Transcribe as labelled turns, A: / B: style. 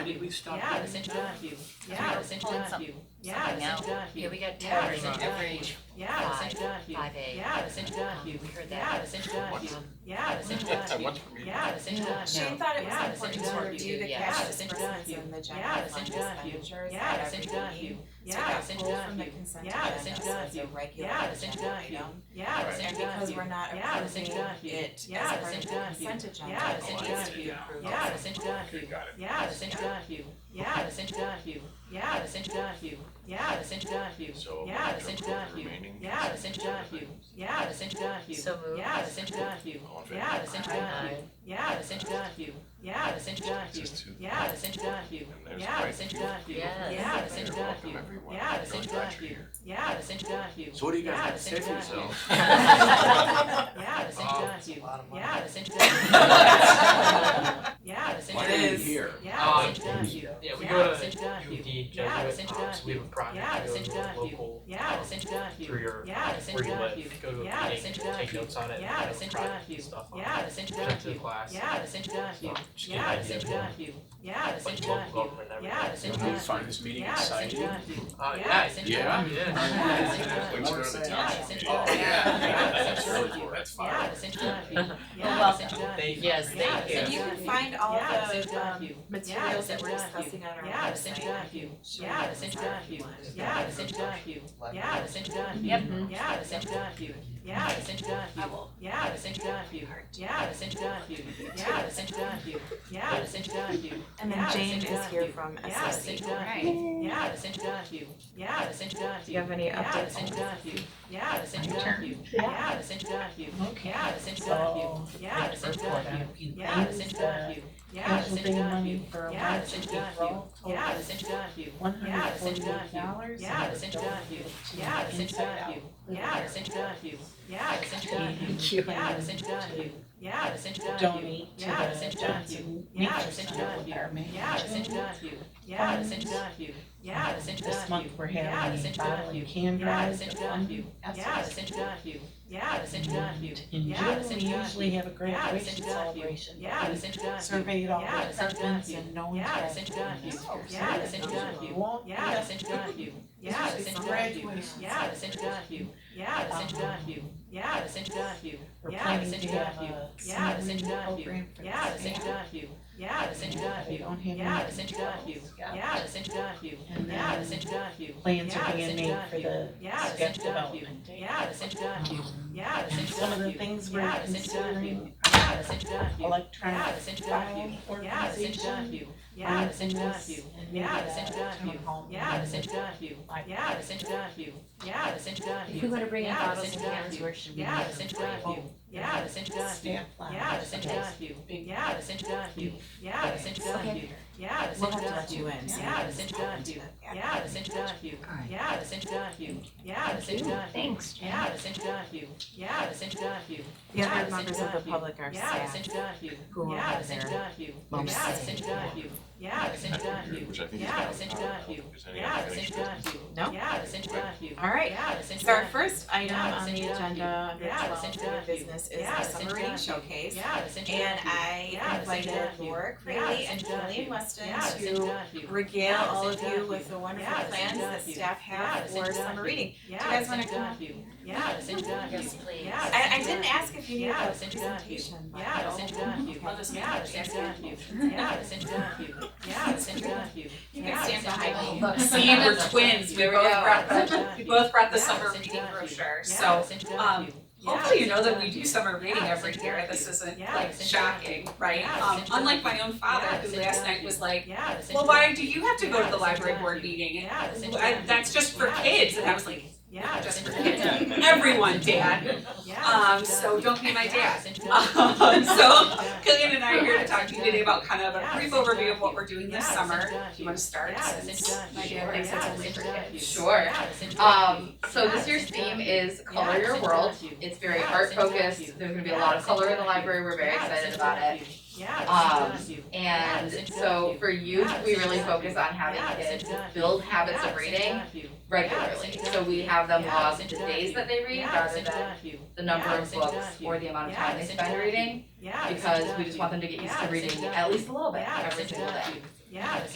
A: we, we've stopped
B: Yeah,
A: that.
B: it's
A: Thank you.
B: Yeah,
C: it's
A: Thank
C: done.
A: you.
B: yeah,
C: now.
A: Thank you.
C: Yeah, we got
B: Yeah,
C: towers
A: it's
C: in every
B: yeah,
C: five,
A: done.
C: five
B: Yeah,
C: A, yeah, it's in,
A: done.
C: we heard
B: Yeah,
C: that, yeah, it's in,
A: done.
C: um,
B: yeah,
C: it's in, yeah,
D: At what point?
C: it's in, yeah,
B: yeah.
E: She thought it was
B: Yeah,
A: it's
E: important to
A: important.
E: review the
C: Yeah,
E: cash
C: it's
E: expenses
A: important.
E: and the general
B: Yeah,
A: it's
E: fund
A: important.
E: expenditures
B: Yeah,
E: at
A: Thank
E: every
A: you. Thank
E: meeting.
A: you.
E: So
B: Yeah,
E: that's pulled from the
A: yeah.
E: consent
B: Yeah,
E: agenda, so it's a
A: yeah.
E: regular
B: Yeah,
E: agenda item.
B: yeah,
D: Right.
E: And because we're not
B: Yeah,
E: approving
A: yeah.
E: it
B: Yeah,
E: as part of the
A: yeah.
E: consent agenda,
B: Yeah,
E: it
D: yeah.
E: needs to be
D: Yeah.
E: approved.
B: Yeah.
C: it's in,
D: Okay, got it.
B: yeah,
C: it's in,
B: yeah,
C: it's in,
B: yeah,
C: it's in,
B: yeah,
C: it's in,
D: So.
B: Yeah,
D: we
B: it's
D: took
B: in
D: the
B: Donahue.
D: remaining-
B: Yeah,
C: it's in,
B: yeah,
C: it's in,
B: yeah,
C: so moved,
B: Yeah,
C: it's in,
D: All in favor?
B: Yeah,
C: it's in,
B: Aye. yeah,
C: it's in,
B: yeah,
C: it's in,
D: Just two.
B: yeah,
C: it's in,
D: And there's
B: Yeah,
D: quite
C: it's in,
D: a few.
C: yes,
B: Yeah,
C: it's in,
D: They're welcome, everyone.
B: Yeah,
D: Really
C: it's in
D: glad you're
C: Donahue.
D: here.
B: yeah,
C: it's in,
F: So what do you
B: Yeah,
F: guys
C: it's
F: think? Save
C: in
F: yourselves.
B: yeah,
C: yeah, it's in, yeah, it's in,
B: yeah,
C: it's in,
F: Why are you
E: is.
F: here?
B: yeah,
G: Um, Yeah, we
B: Yeah,
G: go
C: it's in,
G: to UD
B: Yeah, it's
G: Jesuit
B: in
G: Ops, we have a
B: Yeah,
G: project
B: it's
G: to
B: in
G: go to local,
B: yeah,
C: it's in,
G: through your,
B: yeah,
C: it's in,
G: where you live, go to
B: Yeah,
G: a
C: it's
G: meeting,
C: in
G: take notes on it, and
B: Yeah,
G: have
C: it's in
G: a project stuff on it.
B: Yeah,
C: it's in,
G: Present to the class,
B: Yeah,
C: it's in,
G: so just get an
B: Yeah,
G: idea
C: it's in,
G: of
B: yeah,
G: like local government and
B: Yeah,
G: everything.
B: it's
F: Do you find this meeting
B: Yeah, it's in
F: exciting?
G: Uh,
B: Yeah,
G: yeah,
C: it's in,
F: Yeah?
G: it is.
C: Yeah, it's in,
D: Yeah, let's go to the
F: Yeah,
D: township
C: it's in,
D: meeting.
F: Oh,
B: Yeah.
F: yeah,
B: Yeah.
F: that's really cool, that's
B: Yeah,
F: fire.
C: it's in,
B: yeah,
G: Thank you.
C: Yes,
B: Yeah,
C: thank
E: And
C: you.
E: you can find all
B: Yeah,
E: the
C: it's in
E: um,
C: Donahue.
E: materials that we're
B: Yeah, it's in
E: discussing on our
B: Yeah,
E: website.
B: it's in
E: I can
B: Donahue.
E: show you
B: Yeah,
E: those
B: it's in
E: if you
B: Donahue.
E: want.
B: Yeah, it's in Donahue. Yeah, it's in Donahue.
C: Yep.
B: Yeah, it's in Donahue. Yeah, it's in
E: I
B: Donahue.
E: will.
B: Yeah, it's in Donahue. Yeah, it's in Donahue. Yeah, it's in Donahue. Yeah, it's in Donahue.
E: And then
B: Yeah,
E: Jane
B: it's in
E: is here
B: Donahue.
E: from
B: Yeah, it's in
E: SSC.
B: Donahue. Yeah, it's in Donahue. Yeah, it's in Donahue.
E: any
B: Yeah, it's in Donahue. Yeah, it's in Donahue. Yeah, it's in Donahue. Yeah, it's in Donahue. Yeah, it's in Donahue. Yeah, it's in Donahue. Yeah, it's in Donahue. Yeah, it's in Donahue. Yeah, it's in Donahue.
H: One
B: Yeah, it's
H: hundred
B: in
H: forty-eight
B: Donahue.
H: dollars.
B: Yeah, it's in Donahue. Yeah, it's in Donahue. Yeah, it's in Donahue. Yeah, it's in Donahue. Yeah, it's in Donahue. Yeah, it's in Donahue.
H: Donate to
B: Yeah, it's
H: the
B: in Donahue.
H: Johnson
B: Yeah,
H: Nature
B: it's in
H: Center with our
B: Donahue. Yeah, it's in
H: management.
B: Donahue. Yeah, it's in Donahue. Yeah, it's in
H: This
B: Donahue.
H: month we're
B: Yeah,
H: having
B: it's
H: a
B: in
H: bottle
B: Donahue.
H: and can
B: Yeah, it's
H: drive.
B: in
H: that
B: Donahue.
H: one
B: Yeah,
H: Essex.
B: it's in Donahue. Yeah, it's in Donahue.
H: In
B: Yeah, it's
H: June,
B: in
H: we
B: Donahue.
H: usually have a
B: Yeah, it's
H: graduation
B: in Donahue.
H: celebration.
B: Yeah, it's in
H: We
B: Donahue.
H: Surveyed all
B: Yeah,
H: the
B: it's in
H: departments
B: Donahue.
H: and no one's
B: Yeah, it's
H: graduated
B: in Donahue.
H: this year.
B: Yeah, it's in
H: So
B: Donahue.
H: Long,
B: Yeah, it's in Donahue. Yeah, it's in Donahue. Yeah, it's in Donahue. Yeah, it's in Donahue. Yeah, it's in Donahue.
H: We're
B: Yeah, it's
H: planning
B: in
H: to have
B: Donahue.
H: a
B: Yeah, it's in
H: senior
B: Donahue.
H: program for
B: Yeah,
H: the
B: it's in
H: staff.
B: Donahue. Yeah, it's in
H: Yeah, They
B: Donahue.
H: don't have
B: Yeah,
H: any
B: it's in Donahue.
H: controls.
B: Yeah, it's in Donahue.
H: And
B: Yeah, it's
H: then
B: in Donahue.
H: plans
B: Yeah,
H: are
B: it's
H: being
B: in
H: made for the
B: Yeah, it's
H: staff
B: in Donahue.
H: development day.
B: Yeah, it's in Donahue. Yeah, it's in
H: And
B: Donahue.
H: some of the things we're
B: Yeah, it's in Donahue.
H: considering
B: Yeah, it's in Donahue. Yeah,
H: electronic
B: it's in Donahue.
H: file
B: Yeah, it's in
H: organization.
B: Donahue. Yeah, it's in
H: mindfulness,
B: Donahue.
H: and
B: Yeah,
H: maybe
B: it's in
H: the
B: Donahue.
H: town hall
B: Yeah, it's
H: meeting.
B: in Donahue. Yeah, it's in Donahue. Yeah, it's in
C: If we
B: Donahue.
C: wanna bring in
B: Yeah, it's
C: bottles
B: in
C: and cans,
B: Donahue.
C: where should we?
B: Yeah,
C: use
B: it's
C: them?
B: in Donahue. Yeah, it's in Donahue.
H: Staff lounge.
B: Yeah, it's in Donahue. Yeah, it's in Donahue. Yeah, it's in Donahue. Yeah, it's in
E: We'll have to let
B: Donahue.
E: you in. so you
B: Yeah,
E: can
B: it's in
E: just pop into
B: Donahue.
E: that.
B: Yeah, it's in Donahue. Yeah, it's in Donahue. Yeah, it's in Donahue.
C: Thanks, Jen.
B: Yeah, it's in Donahue. Yeah, it's in Donahue.
E: The
B: Yeah,
E: other
B: it's
E: members of the
B: Donahue.
E: public are
B: Yeah, it's
E: staff.
B: in Donahue.
E: who will
B: Yeah,
E: have
B: it's in
E: their
B: Donahue.
E: moments
B: Yeah, it's
E: saved.
B: in Donahue. Yeah, it's in Donahue.
D: Which I think is.
B: Yeah, it's in
D: not-
B: Donahue.
D: Is any
B: Yeah, it's in
D: unfinished business?
B: Donahue.
E: No.
B: Yeah, it's in Donahue.
E: All right.
B: Yeah, it's in
E: So our
B: Donahue.
E: first item
B: Yeah, it's
E: on the
B: in Donahue.
E: agenda under
B: Yeah, it's in
E: twelve new
B: Donahue.
E: business is
B: Yeah,
E: the
B: it's in
E: summer reading
B: Donahue.
E: showcase.
B: Yeah, it's in
E: And
B: Donahue. Yeah,
E: I
B: it's in
E: invited
B: Donahue.
E: Laura
B: Yeah,
E: Crayley
B: it's in
E: and Julian
B: Donahue.
E: Weston
B: Yeah, it's in
E: to
B: Donahue.
E: regale
B: Yeah, it's
E: all
B: in
E: of you
B: Donahue.
E: with the wonderful
B: Yeah, it's in
E: plans that
B: Donahue.
E: staff
B: Yeah,
E: have
B: it's in
E: for
B: Donahue.
E: summer reading.
B: Yeah,
E: Do you guys
B: it's
E: wanna
B: in
E: come?
B: Donahue. Yeah, it's in Donahue.
C: Yes, please.
B: Yeah, it's
E: I, I
B: in
E: didn't
B: Donahue.
E: ask if you needed
B: Yeah,
E: a
B: it's in Donahue.
E: presentation, but.
B: Yeah, it's in Donahue.
E: I'll just make
B: Yeah,
E: it
B: it's
E: check.
B: in Donahue. Yeah, it's in Donahue. Yeah, it's in Donahue. Yeah,
E: You can stand
B: it's in Donahue.
E: behind me.
C: Look,
E: See, we're twins, we both brought the, we both brought the
B: Yeah,
E: summer
B: it's in
E: reading
B: Donahue.
E: brochure,
B: Yeah,
E: so. uh,
B: it's in Donahue. Yeah,
E: Hopefully you
B: it's
E: know
B: in
E: that we
B: Donahue.
E: do summer reading
B: Yeah, it's
E: every
B: in
E: year,
B: Donahue.
E: this isn't
B: Yeah,
E: like
B: it's in
E: shocking, right?
B: Yeah, it's
E: Um,
B: in
E: unlike my own father,
B: Yeah, it's
E: who
B: in
E: last night
B: Donahue.
E: was like,
B: Yeah, it's in
E: well,
B: Donahue.
E: why do you have to go to the library board meeting? And
B: Yeah, it's in
E: I,
B: Donahue.
E: that's just for
B: Yeah.
E: kids, and I was like,
B: Yeah, it's
E: just
B: in
E: for
B: Donahue.
E: kids, everyone, dad.
B: Yeah,
E: Um,
B: it's in
E: so
B: Donahue.
E: don't be my
B: Yeah,
E: dad.
B: it's in Donahue.
E: Um, so
B: Yeah.
E: Killian and I are here to talk to you today about kind of a
B: Yeah,
E: brief
B: it's in
E: overview of
B: Donahue.
E: what we're doing this
B: Yeah, it's in
E: summer.
B: Donahue.
E: You wanna start?
B: Yeah, it's in
E: since
B: Donahue.
E: My
B: Sure.
E: dad thinks it's
B: Yeah,
E: only
B: it's
E: for
B: in Donahue.
E: kids.
I: Sure.
B: Yeah, it's in
E: uh,
B: Donahue.
I: Um, so this year's theme is Color Your World. It's very art focused. There's gonna be a lot of color in the library. We're very excited about it.
E: um,
B: Yeah, it's in Donahue. Yeah,
I: And
B: it's in
I: so for youth, we really focus on having kids build habits of reading regularly. So we have them log the days that they read rather than the number of books or the amount of time they spend reading because we just want them to get used to reading at least a little bit every single day.
B: Yeah, it's